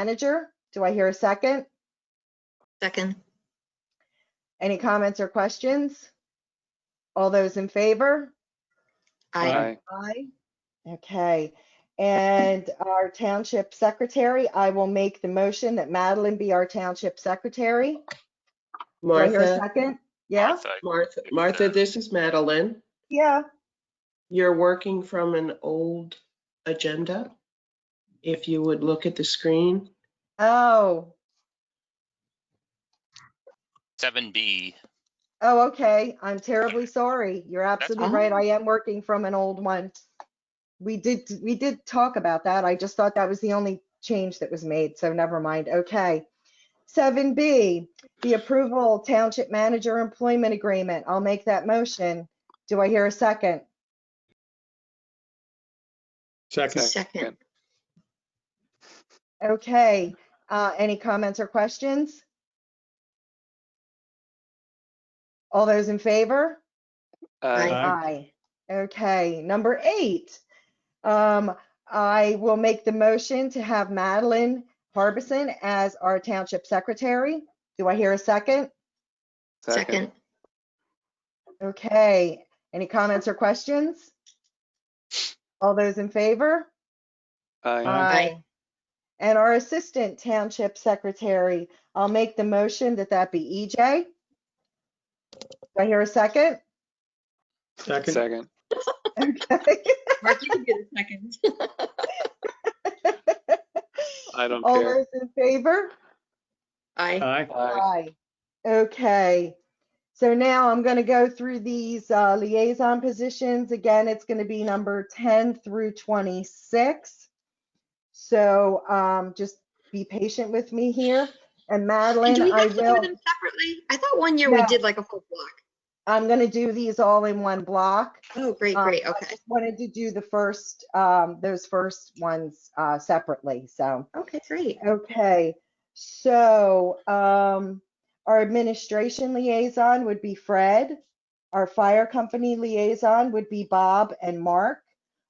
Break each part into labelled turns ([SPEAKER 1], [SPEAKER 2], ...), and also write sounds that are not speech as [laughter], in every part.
[SPEAKER 1] manager. Do I hear a second?
[SPEAKER 2] Second.
[SPEAKER 1] Any comments or questions? All those in favor?
[SPEAKER 2] Aye.
[SPEAKER 1] Aye. Okay, and our township secretary, I will make the motion that Madeline be our township secretary. Do I hear a
[SPEAKER 3] Martha,
[SPEAKER 1] second? Yeah,
[SPEAKER 4] Martha,
[SPEAKER 3] Martha, Martha, this is Madeline.
[SPEAKER 1] yeah,
[SPEAKER 3] You're working from an old agenda. If you would look at the screen,
[SPEAKER 1] oh,
[SPEAKER 4] Seven B.
[SPEAKER 1] oh, okay, I'm terribly sorry. You're absolutely right,
[SPEAKER 2] fine.
[SPEAKER 1] I am working from an old one. We did, we did talk about that, I just thought that was the only change that was made, so never mind, okay. Seven B, the approval township manager employment agreement, I'll make that motion. Do I hear a second?
[SPEAKER 5] Second.
[SPEAKER 2] Second.
[SPEAKER 1] Okay, uh, any comments or questions? All those in favor?
[SPEAKER 2] Aye.
[SPEAKER 5] Aye.
[SPEAKER 1] Aye. Okay, number eight. Um, I will make the motion to have Madeline Harbison as our Township Secretary. Do I hear a second?
[SPEAKER 2] Second.
[SPEAKER 1] Okay, any comments or questions? All those in favor?
[SPEAKER 5] Aye.
[SPEAKER 1] Aye. And our Assistant Township Secretary, I'll make the motion that that be EJ. Do I hear a second?
[SPEAKER 5] Second.
[SPEAKER 4] Second.
[SPEAKER 1] Okay.
[SPEAKER 2] Mark, you can get a second.
[SPEAKER 4] I don't
[SPEAKER 1] All those in favor?
[SPEAKER 2] [laughs] Aye.
[SPEAKER 5] Aye.
[SPEAKER 1] Aye. Okay, so now I'm going to go through these uh, liaison positions. Again, it's going to be number 10 through 26. So um, just be patient with me here. And
[SPEAKER 2] And do we
[SPEAKER 1] Madeline, I
[SPEAKER 2] have to do
[SPEAKER 1] will,
[SPEAKER 2] them separately? I thought one year we
[SPEAKER 1] No.
[SPEAKER 2] did like a whole block.
[SPEAKER 1] I'm going to do these all in one block.
[SPEAKER 2] Oh, great,
[SPEAKER 1] Um,
[SPEAKER 2] great,
[SPEAKER 1] I
[SPEAKER 2] okay.
[SPEAKER 1] just Wanted to do the first, um, those first ones uh, separately, so.
[SPEAKER 2] Okay, great.
[SPEAKER 1] Okay, so um, our administration liaison would be Fred. Our fire company liaison would be Bob and Mark.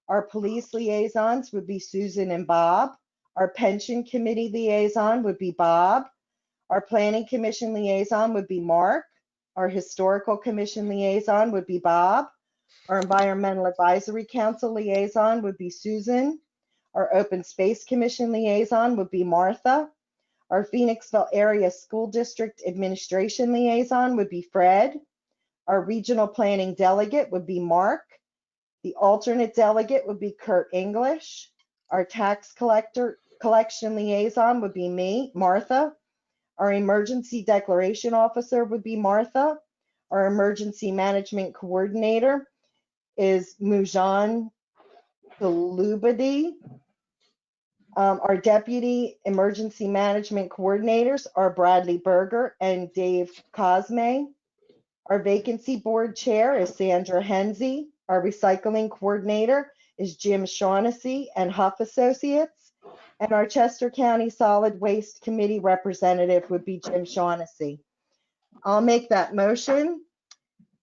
[SPEAKER 1] Our police liaisons would be Susan and Bob. Our pension committee liaison would be Bob. Our planning commission liaison would be Mark. Our historical commission liaison would be Bob. Our environmental advisory council liaison would be Susan. Our Open Space Commission liaison would be Martha. Our Phoenixville Area School District Administration liaison would be Fred. Our Regional Planning Delegate would be Mark. The alternate delegate would be Kurt English. Our Tax Collector Collection Liaison would be me, Martha. Our Emergency Declaration Officer would be Martha. Our Emergency Management Coordinator is Mujan Galubadee. Um, our deputy emergency management coordinators are Bradley Berger and Dave Cosme. Our vacancy board chair is Sandra Hensy. Our recycling coordinator is Jim Shaughnessy and Huff Associates. And our Chester County Solid Waste Committee representative would be Jim Shaughnessy. I'll make that motion.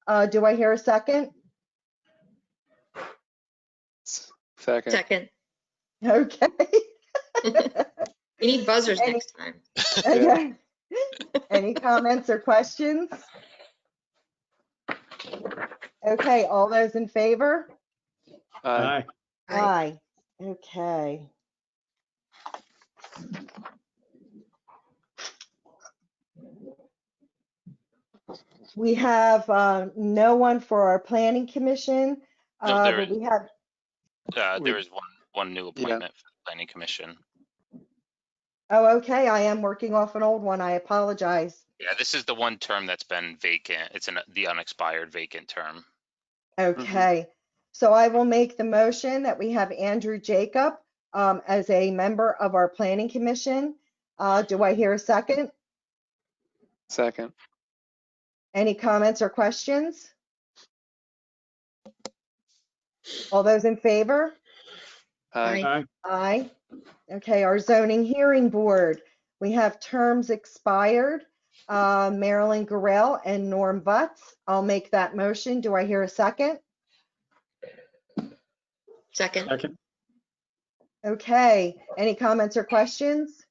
[SPEAKER 1] Uh, do I hear a second? [laughs]
[SPEAKER 5] Second.
[SPEAKER 2] Second.
[SPEAKER 1] Okay.
[SPEAKER 2] We need buzzers
[SPEAKER 1] Any-
[SPEAKER 2] next time.
[SPEAKER 1] Okay. [laughs] Any comments or questions? Okay, all those in favor?
[SPEAKER 5] Aye.
[SPEAKER 2] Aye.
[SPEAKER 1] Aye. Okay. We have uh, no one for our planning commission.
[SPEAKER 4] No,
[SPEAKER 1] uh,
[SPEAKER 4] there
[SPEAKER 1] but
[SPEAKER 4] is.
[SPEAKER 1] We have,
[SPEAKER 4] Uh, there
[SPEAKER 5] We-
[SPEAKER 4] is one, one new appointment for the planning commission.
[SPEAKER 1] oh, okay, I am working off an old one. I apologize.
[SPEAKER 4] Yeah, this is the one term that's been vacant. It's an, the unexpired vacant term.
[SPEAKER 1] Okay, so I will make the motion that we have Andrew Jacob um, as a member of our planning commission. Uh, Do I hear a second?
[SPEAKER 5] Second.
[SPEAKER 1] Any comments or questions? All those in favor?
[SPEAKER 5] Aye.
[SPEAKER 2] Aye.
[SPEAKER 1] Aye. Okay, our zoning hearing board, we have terms expired. uh, Marilyn Gorell and Norm Butts. I'll make that motion. Do I hear a second?
[SPEAKER 2] Second.
[SPEAKER 5] Second.
[SPEAKER 1] Okay, any comments or questions?